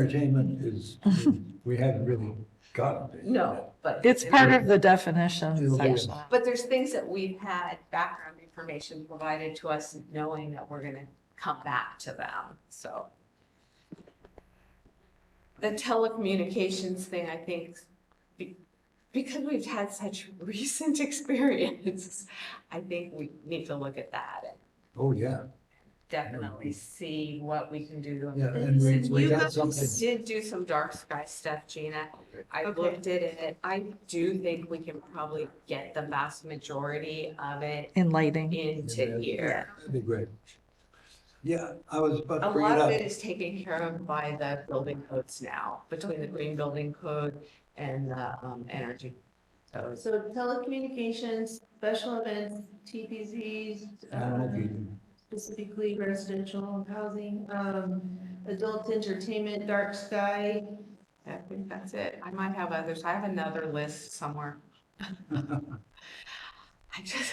Entertainment is, we haven't really gotten it. No, but. It's part of the definition Yeah. section. But there's things that we've had background information provided to us, knowing that we're gonna come back to them, so. The telecommunications thing, I think, be- because we've had such recent experience, I think we need to look at that and Oh, yeah, definitely see what we can do to yeah, and we, we you got guys something. did do some dark sky stuff, Gina. I Okay. looked at it. I do think we can probably get the vast majority of it In lighting, into here. That'd be great. Yeah, I was about A to bring it lot of it up. is taken care of by the building codes now, between the green building code and the um, energy codes. So telecommunications, special events, TPZs, Animal uh, feeding. specifically residential housing, um, adult entertainment, dark sky. I think that's it. I might have others. I have another list somewhere. I just,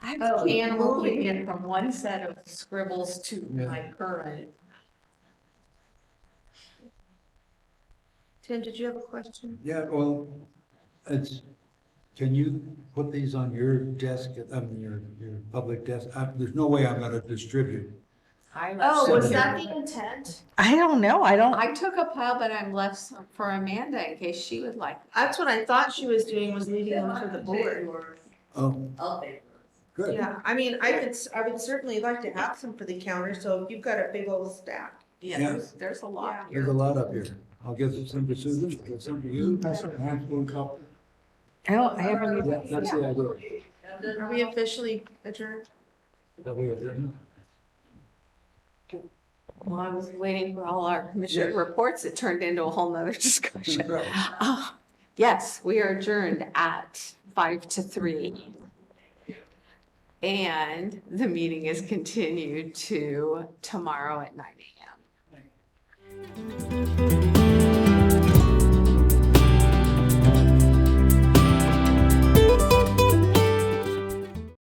I Oh, keep and moving moving. it from one set of scribbles to Yeah. my current. Tim, did you have a question? Yeah, well, it's, can you put these on your desk, I mean, your, your public desk? I- There's no way I'm gonna distribute. I- Oh, was Seven. that the intent? I don't know, I don't, I took a pile, but I'm left some for Amanda in case she would like. That's what I thought she was doing, was leaving them for the board. Oh, I'll pay for it. good. Yeah, I mean, I could, s- I would certainly like to have some for the counter, so if you've got a big old stack. Yeah, Yeah. there's, there's a lot There's a here. lot up here. I'll get some to Susan, get some to you. That's one cup. I don't, I haven't even. Yeah, that's the idea. Are we officially adjourned? That we are doing. Well, I was waiting for all our commission reports. It turned into a whole nother discussion. Mm-hmm. Ah, Yes, we are adjourned at five to three. And the meeting is continued to tomorrow at nine AM.